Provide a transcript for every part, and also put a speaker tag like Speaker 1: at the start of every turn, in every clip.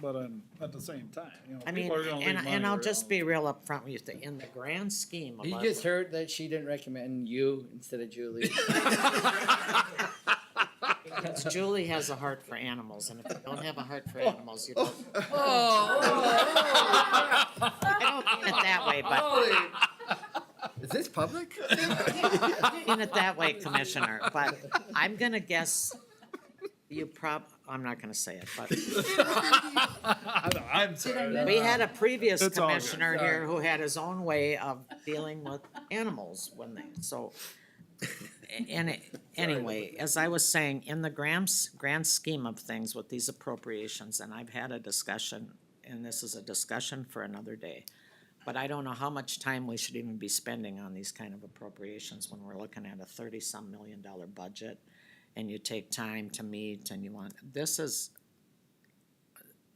Speaker 1: but um, at the same time, you know,
Speaker 2: I mean,
Speaker 1: people are gonna leave
Speaker 2: and,
Speaker 1: money
Speaker 2: and I'll
Speaker 1: around.
Speaker 2: just be real upfront with you, that in the grand scheme of
Speaker 3: He
Speaker 2: our.
Speaker 3: just heard that she didn't recommend you instead of Julie.
Speaker 2: Because Julie has a heart for animals, and if you don't have a heart for animals, you don't.
Speaker 4: Oh,
Speaker 2: I don't mean it that way,
Speaker 3: Oh.
Speaker 2: but,
Speaker 3: Is this public?
Speaker 2: I mean it that way, Commissioner, but I'm gonna guess you prob, I'm not gonna say it, but
Speaker 1: I know, I'm sorry.
Speaker 2: we had a previous
Speaker 1: It's all good,
Speaker 2: commissioner here who had his own way of dealing with animals when they, so. And it, anyway, as I was saying, in the grand, s- grand scheme of things with these appropriations, and I've had a discussion, and this is a discussion for another day. But I don't know how much time we should even be spending on these kind of appropriations when we're looking at a thirty-some million dollar budget. And you take time to meet and you want, this is,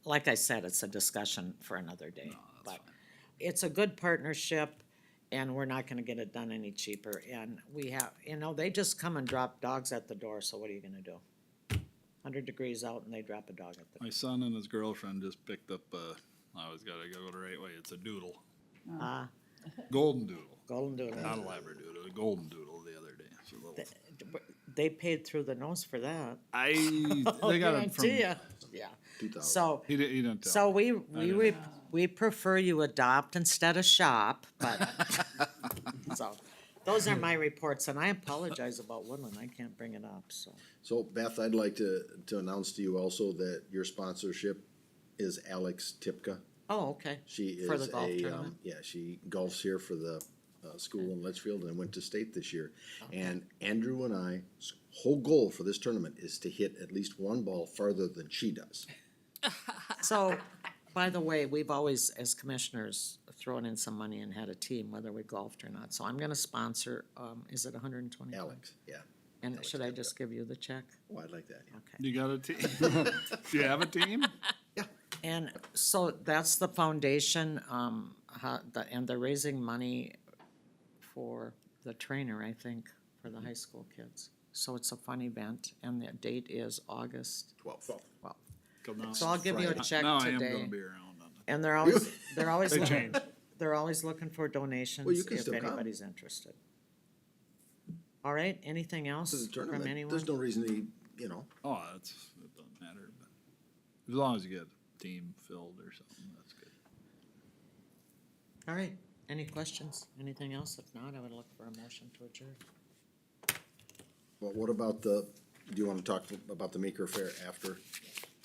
Speaker 2: like I said, it's a discussion for another day. But it's a good partnership and we're not gonna get it done any cheaper. And we have, you know, they just come and drop dogs at the door, so what are you gonna do? Hundred degrees out and they drop a dog at the,
Speaker 1: My son and his girlfriend just picked up, uh, I always gotta go the right way, it's a doodle,
Speaker 2: ah,
Speaker 1: golden doodle,
Speaker 2: golden doodle.
Speaker 1: not a labradoodle, a golden doodle the other day. It's a little-
Speaker 2: They paid through the nose for that.
Speaker 1: I,
Speaker 2: Oh,
Speaker 1: they got it from,
Speaker 2: Guarantee ya.
Speaker 1: he
Speaker 2: Yeah, so,
Speaker 1: didn't, he didn't
Speaker 2: so
Speaker 1: tell.
Speaker 2: we, we, re- we prefer you adopt instead of shop, but, so, those are my reports, and I apologize about Woodland, I can't bring it up, so.
Speaker 4: So Beth, I'd like to, to announce to you also that your sponsorship is Alex Tipka.
Speaker 2: Oh, okay.
Speaker 4: She
Speaker 2: For the
Speaker 4: is
Speaker 2: golf
Speaker 4: a,
Speaker 2: tournament?
Speaker 4: um, yeah, she golfs here for the, uh, school in Litchfield and went to state this year. And Andrew and I's whole goal for this tournament is to hit at least one ball farther than she does. um,
Speaker 2: So, by the way, we've always, as commissioners, thrown in some money and had a team, whether we golfed or not, so I'm gonna sponsor, um, is it hundred and twenty?
Speaker 4: Alex, yeah.
Speaker 2: And
Speaker 4: Alex
Speaker 2: should I
Speaker 4: Tipka.
Speaker 2: just give you the check?
Speaker 4: Oh, I'd like that. yeah.
Speaker 2: Okay.
Speaker 1: You got a team? Do you have a team?
Speaker 2: And so that's the foundation, um, how, the, and they're raising money for the trainer, I think, for the high school kids. So it's a fun event, and the date is August
Speaker 4: Twelve.
Speaker 2: twelfth.
Speaker 1: Come on.
Speaker 2: So I'll give you a
Speaker 4: Friday.
Speaker 2: check
Speaker 1: Now I am gonna
Speaker 2: today.
Speaker 1: be around on
Speaker 2: And they're always, they're always,
Speaker 1: They
Speaker 2: looking-
Speaker 1: change.
Speaker 2: they're always looking for donations
Speaker 4: can
Speaker 2: if
Speaker 4: still come.
Speaker 2: anybody's interested. All right, anything else
Speaker 4: This is a
Speaker 2: from
Speaker 4: tournament.
Speaker 2: anyone?
Speaker 4: There's no reason to, you know,
Speaker 1: Oh, that's, it doesn't matter, but as long as you get a team filled or something, that's good.
Speaker 2: All right, any questions, anything else? If not, I would look for a motion to adjourn.
Speaker 4: but what about the, do you wanna talk about the Meeker Fair after?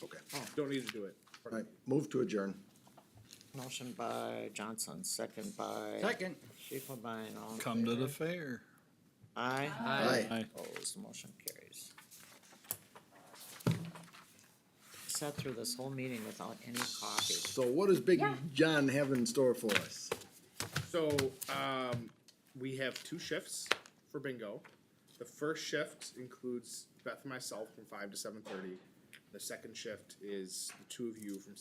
Speaker 4: Okay.
Speaker 5: Oh, Don't need to do it.
Speaker 4: All right, move to adjourn.
Speaker 2: Motion by Johnson, second by.
Speaker 3: Second.
Speaker 2: Schiefelbein, all in
Speaker 1: Come to the
Speaker 2: favor?
Speaker 1: fair.
Speaker 2: Aye.
Speaker 4: Aye.
Speaker 1: Aye.
Speaker 2: Opposed, motion carries. Sat through this whole meeting without any coffee.
Speaker 4: So what does Big John have in store for us?
Speaker 5: So, um, we have two shifts for bingo. The first shift includes Beth and myself from five to seven thirty. The second shift is the two of you from